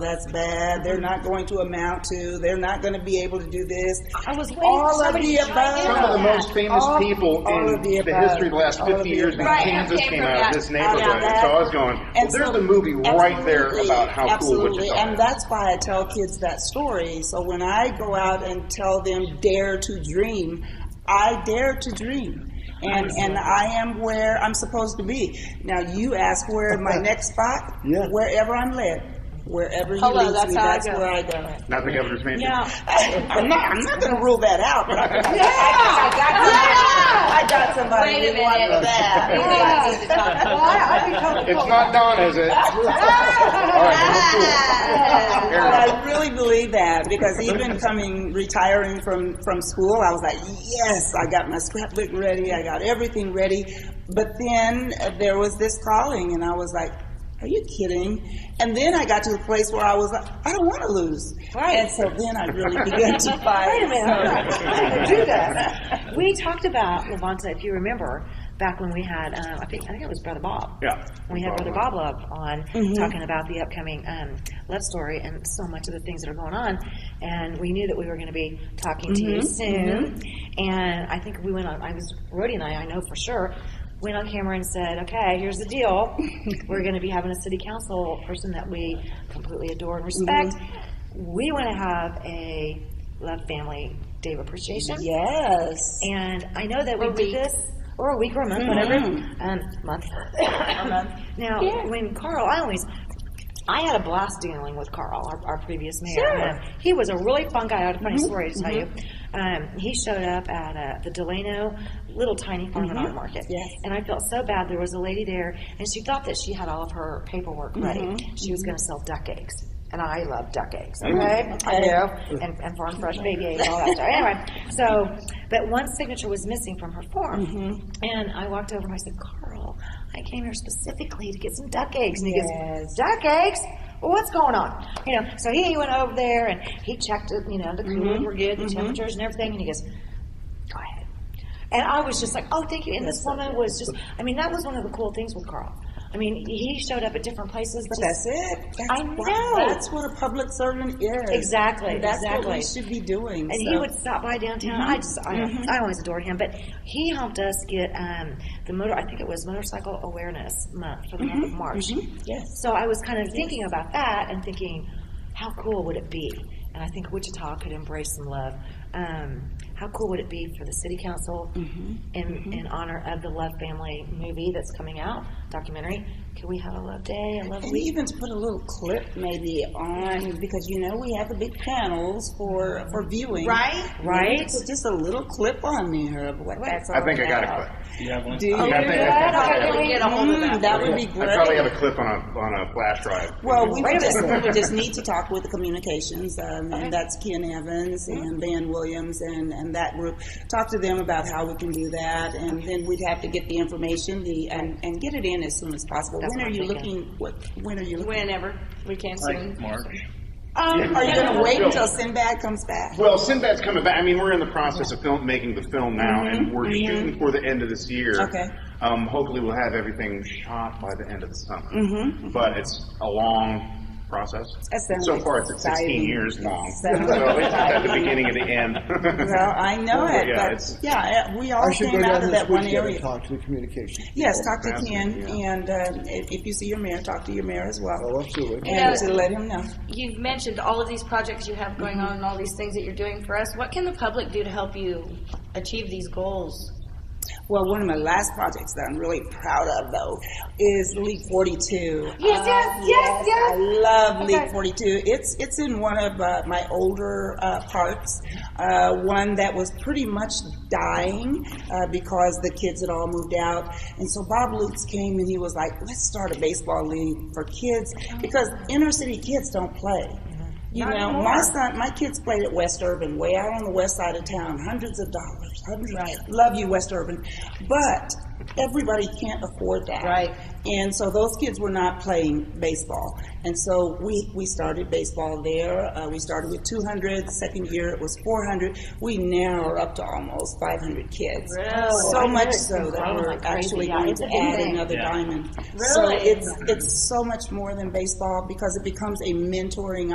that's bad. They're not going to amount to. They're not going to be able to do this. I was waiting All for of somebody the to chime above. in Some of the on that. most famous All- all people in of the the above. history of the last All of 50 the years in above. Kansas Right, came okay, out from of this that. neighborhood. Yeah, So I was that- going, well, and there's so- the movie right there absolutely, about how cool absolutely. Wichita And is. that's why I tell kids that story. So when I go out and tell them dare to dream, I dare to dream. And and I am where I'm supposed to be. Now you ask where my next spot? Yeah. Wherever I'm led. Wherever he Hello, leads that's me, how I that's go. where I go. Not the governor's mansion. No. I'm not I'm not gonna rule that out, but I, I got somebody Wait a who wanted minute. that. We need to talk about It's not Don, is it? All right, Ah! But I really believe that because even coming retiring from from school, I was like, yes, I got my scrapbook ready, I got everything ready. But then uh, there was this calling, and I was like, are you kidding? And then I got to the place where I was like, I don't want to lose. Right. And so then I really began to fight. Wait a minute, I'm not, I'm not gonna do this. We talked about Levanta, if you remember, back when we had, um, I think, I think it was Brother Bob. Yeah. When we had Bob Brother Bob Love on, talking about the upcoming, um, love story and so much of the things that are going on. And we knew that we were gonna be talking to you soon. And I think we went on, I was, Rhodey and I, I know for sure, went on camera and said, okay, here's the deal. We're gonna be having a city council person that we completely adore and respect. We wanna have a Love Family Day of Appreciation. Yes. And I know that we Or did week. this, or a week or a month, whatever, um, month. Now, Yeah. when Carl, I always, I had a blast dealing with Carl, our, our previous mayor. Um, he was a really fun guy. I had a funny story to tell you. Um, he showed up at uh, the Delano little tiny farm and art market. Yes. And I felt so bad. There was a lady there, and she thought that she had all of her paperwork ready. She was going to sell duck eggs. And I love duck eggs, okay? I do. And, and farm fresh baby eggs, all that stuff. Anyway, so, but one signature was missing from her form. And I walked over and I said, Carl, I came here specifically to get some duck eggs. And he goes, Duck eggs? Well, what's going on? You know, so he went over there and he checked it, you know, the coolers were good, the temperatures and everything. And he goes, go ahead. And I was just like, oh, thank you. And this woman was just, I mean, that was one of the cool things with Carl. I mean, he showed up at different places. But that's just- it. That's I what- know. That's what a public servant is. Exactly, That's what we exactly. should be doing. and he so. Mm-hmm. would stop by downtown. I just, I, I always adored him. But he helped us get um, the motor. I think it was Motorcycle Awareness Month for the month of March. Mm-hmm. Yes. So I was kind of thinking about that and thinking, how cool would it be? And I think Wichita could embrace some love. Um, how cool would it be for the city council Mm-hmm. in, in honor of the Love Family movie that's coming out, documentary? Can we have a love day, a love And week? even to put a little clip maybe on, because you know, we have the big panels for, for viewing. Right? Right? So just a little clip on there of what that's all I think I got about. a clip. You have one? Do you? Yeah, I think I- I Okay, think I we have get a hold of Mm, that. That would be a- great. I probably have a clip on a, on a flash drive. Well, we Wait would a just, we minute. would just need to talk with the communications, um, and that's Ken Evans Mm-hmm. and Van Williams and, and that group. Talk to them about how we can do that, and then we'd have to get the information, the, and, and get it in as soon as possible. That's When what are I'm you thinking. looking, what, when are you looking? Um, Whenever we can Like soon. March. Are you gonna wait Yeah. until Sinbad comes back? Well, Sinbad's coming back. I mean, we're in the process of film making the film now, and we're shooting for the end of this year. Okay. Um, hopefully, we'll have everything shot by the end of the summer. But it's a long process. That sounds So far, it's 16 exciting. years long. So Sounds it's at the exciting. beginning and the end. Well, I know Well, it, yeah, but it's- yeah, uh, we all I should came go down out of this that one weekend and area. Talk to the communication. Yes, talk to Ken, Fascinating, and uh, if if you see your mayor, talk to your mayor as well. Oh, absolutely. And Yeah. to let him know. You've mentioned all of these projects you have going on and all these things that you're doing for us. What can the public do to help you achieve these goals? Well, one of my last projects that I'm really proud of, though, is League 42. Yes, yes, Uh, yes, yes. I love Okay. League 42. It's it's in one of uh, my older uh, parks, uh, one that was pretty much dying uh, because the kids had all moved out. And so Bob Lutz came and he was like, "Let's start a baseball league for kids Mm-hmm. because inner city kids don't play." You Not know, anymore. my son, my kids played at West Urban, way out on the west side of town, hundreds of dollars. Hundreds. Love you, West Urban, but everybody can't afford that. Right. And so those kids were not playing baseball. And so we, we started baseball there. Uh, we started with 200. Second year it was 400. We now are up to almost 500 kids. Really? So much it's so been that growing we're like crazy. actually Yeah, going it's to a big add thing. another Yeah. diamond. So Really? it's, it's so much more than baseball because it becomes a mentoring